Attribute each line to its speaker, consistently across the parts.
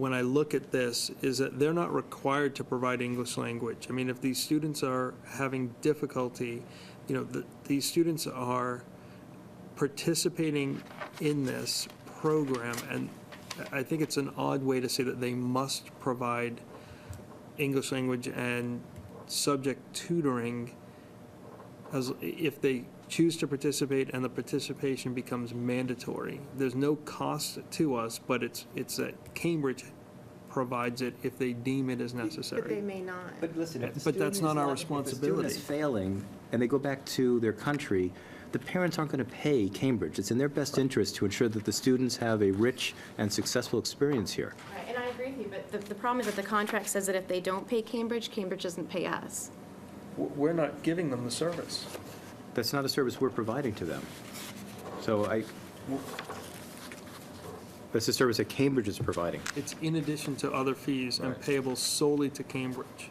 Speaker 1: when I look at this, is that they're not required to provide English language. I mean, if these students are having difficulty, you know, the, these students are participating in this program, and I I think it's an odd way to say that they must provide English language and subject tutoring as, if they choose to participate and the participation becomes mandatory. There's no cost to us, but it's, it's that Cambridge provides it if they deem it as
Speaker 2: But they
Speaker 1: necessary.
Speaker 2: may not.
Speaker 3: But listen, if the
Speaker 1: But that's
Speaker 3: student is
Speaker 1: not our
Speaker 3: if the student is
Speaker 1: responsibility.
Speaker 3: failing, and they go back to their country, the parents aren't going to pay Cambridge. It's in their best interest to ensure that the students have a rich and successful experience here.
Speaker 4: Right, And I agree with you, but the, the problem is that the contract says that if they don't pay Cambridge, Cambridge doesn't pay us.
Speaker 1: W- We're not giving them the service.
Speaker 3: That's not a service we're providing to them. So I, that's a service that Cambridge is providing.
Speaker 1: It's in addition to other fees and
Speaker 3: Right.
Speaker 1: payable solely to Cambridge.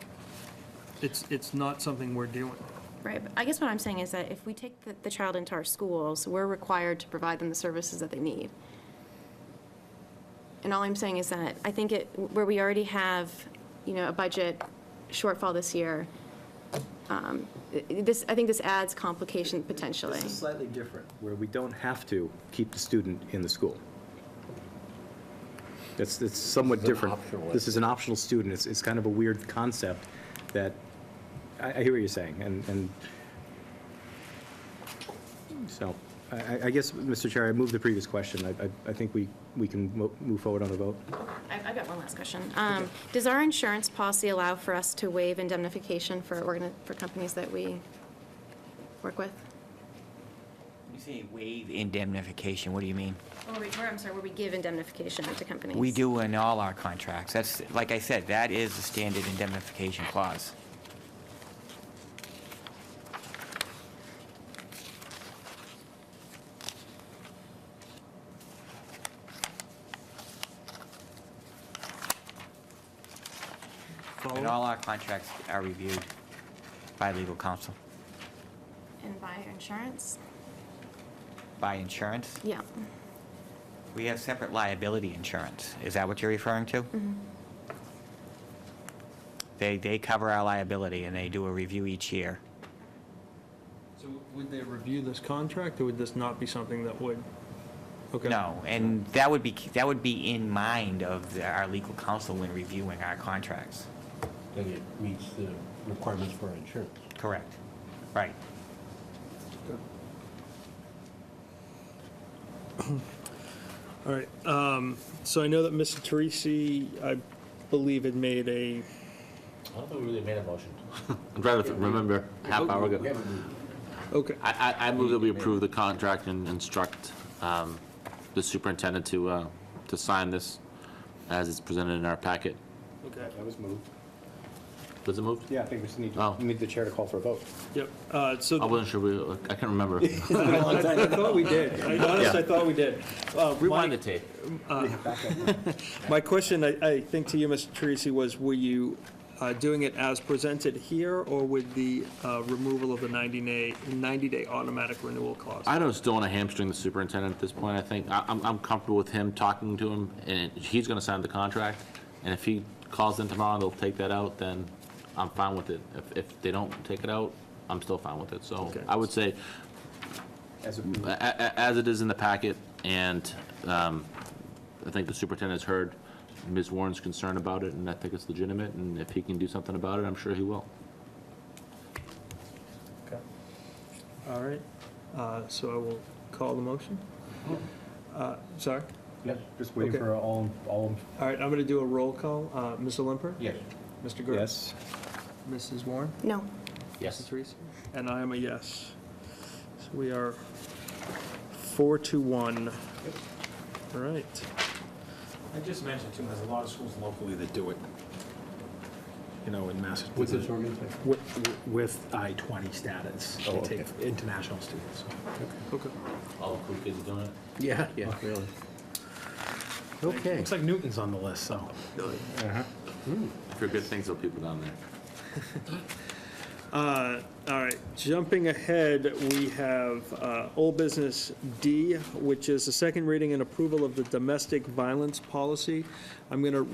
Speaker 1: It's, it's not something we're doing.
Speaker 4: Right, but I guess what I'm saying is that if we take the, the child into our schools, we're required to provide them the services that they need. And all I'm saying is that I think it, where we already have, you know, a budget shortfall this year, um, i- i- this, I think this adds complication potentially.
Speaker 3: This is slightly different, where we don't have to keep the student in the school. It's, it's somewhat
Speaker 5: This is an
Speaker 3: different.
Speaker 5: optional.
Speaker 3: This is an optional student. It's, it's kind of a weird concept that, I, I hear what you're saying, and, and, so, I- I, I guess, Mr. Chair, I moved the previous question. I, I- I think we, we can mo- move forward on the vote.
Speaker 4: I've, I've got one last question. Um, Does our insurance policy allow for us to waive indemnification for, organi- for companies that we work with?
Speaker 5: You say waive indemnification, what do you mean?
Speaker 4: Or, we- or, I'm sorry, where we give indemnification to companies?
Speaker 5: We do in all our contracts. That's, like I said, that is the standard indemnification clause. And
Speaker 1: Follow?
Speaker 5: all our contracts are reviewed by legal counsel,
Speaker 4: And by insurance?
Speaker 5: by insurance.
Speaker 4: Yeah.
Speaker 5: We have separate liability insurance. Is that what you're referring to? They, they cover our liability and they do a review each year.
Speaker 1: So would they review this contract, or would this not be something that would? Okay.
Speaker 5: No, and that would be, that would be in mind of the- our legal counsel when reviewing our contracts.
Speaker 6: that it meets the requirements for insurance.
Speaker 5: Correct. Right.
Speaker 1: All right, um, so I know that Mr. Teresi, I believe, had made a,
Speaker 6: I don't think we really made a motion.
Speaker 7: I'm trying to remember, half hour
Speaker 6: We
Speaker 7: ago.
Speaker 6: haven't moved.
Speaker 1: okay,
Speaker 7: I, I, I move that we approve the contract and instruct um, the superintendent to, uh, to sign this as it's presented in our packet.
Speaker 1: okay,
Speaker 3: That was moved.
Speaker 7: Was it moved?
Speaker 3: Yeah, I think we just need,
Speaker 7: Oh.
Speaker 3: to need the chair to call for a vote.
Speaker 1: yep. Uh,
Speaker 7: I
Speaker 1: So
Speaker 7: wasn't sure, we- I can't remember.
Speaker 1: I thought we did, I honestly, I
Speaker 7: Yeah.
Speaker 1: thought we did. Uh, my-
Speaker 7: Rewind the tape.
Speaker 1: My question, I, I think to you, Mr. Teresi, was were you uh, doing it as presented here, or with the uh, removal of the 90-day, 90-day automatic renewal clause?
Speaker 7: I just don't want to hamstring the superintendent at this point, I think. I, I'm, I'm comfortable with him talking to him, and he's going to sign the contract. And if he calls in tomorrow and they'll take that out, then I'm fine with it. If, if they don't take it out, I'm still fine with it. So
Speaker 1: Okay.
Speaker 7: I would say,
Speaker 3: As a-
Speaker 5: Mm-hmm.
Speaker 7: a- a- as it is in the packet, and um, I think the superintendent's heard Ms. Warren's concern about it, and I think it's legitimate, and if he can do something about it, I'm sure he will.
Speaker 1: All right, uh, so I will call the motion. Uh, Sorry?
Speaker 3: yeah, Just waiting
Speaker 1: Okay.
Speaker 3: for all, all,
Speaker 1: All right, I'm going to do a roll call. Uh, Mr. Limper?
Speaker 6: Yes.
Speaker 1: Mr. Gerst?
Speaker 3: yes?
Speaker 1: Mrs. Warren?
Speaker 4: No.
Speaker 1: Mrs. Teresi? And I am a yes. So we are four to one. All right.
Speaker 8: I just mentioned too, there's a lot of schools locally that do it. You know, in Massachusetts.
Speaker 6: With this organization?
Speaker 8: With, with I-20 status.
Speaker 6: Oh,
Speaker 8: They take
Speaker 6: okay.
Speaker 8: international students.
Speaker 1: Okay.
Speaker 7: All the cool kids are doing it.
Speaker 6: Yeah, yeah, really. Okay.
Speaker 8: Looks like Newton's on the list, so.
Speaker 7: For good things, there people down there.
Speaker 1: Uh, All right, jumping ahead, we have uh, Old Business D, which is the second reading and approval of the domestic violence policy. I'm going to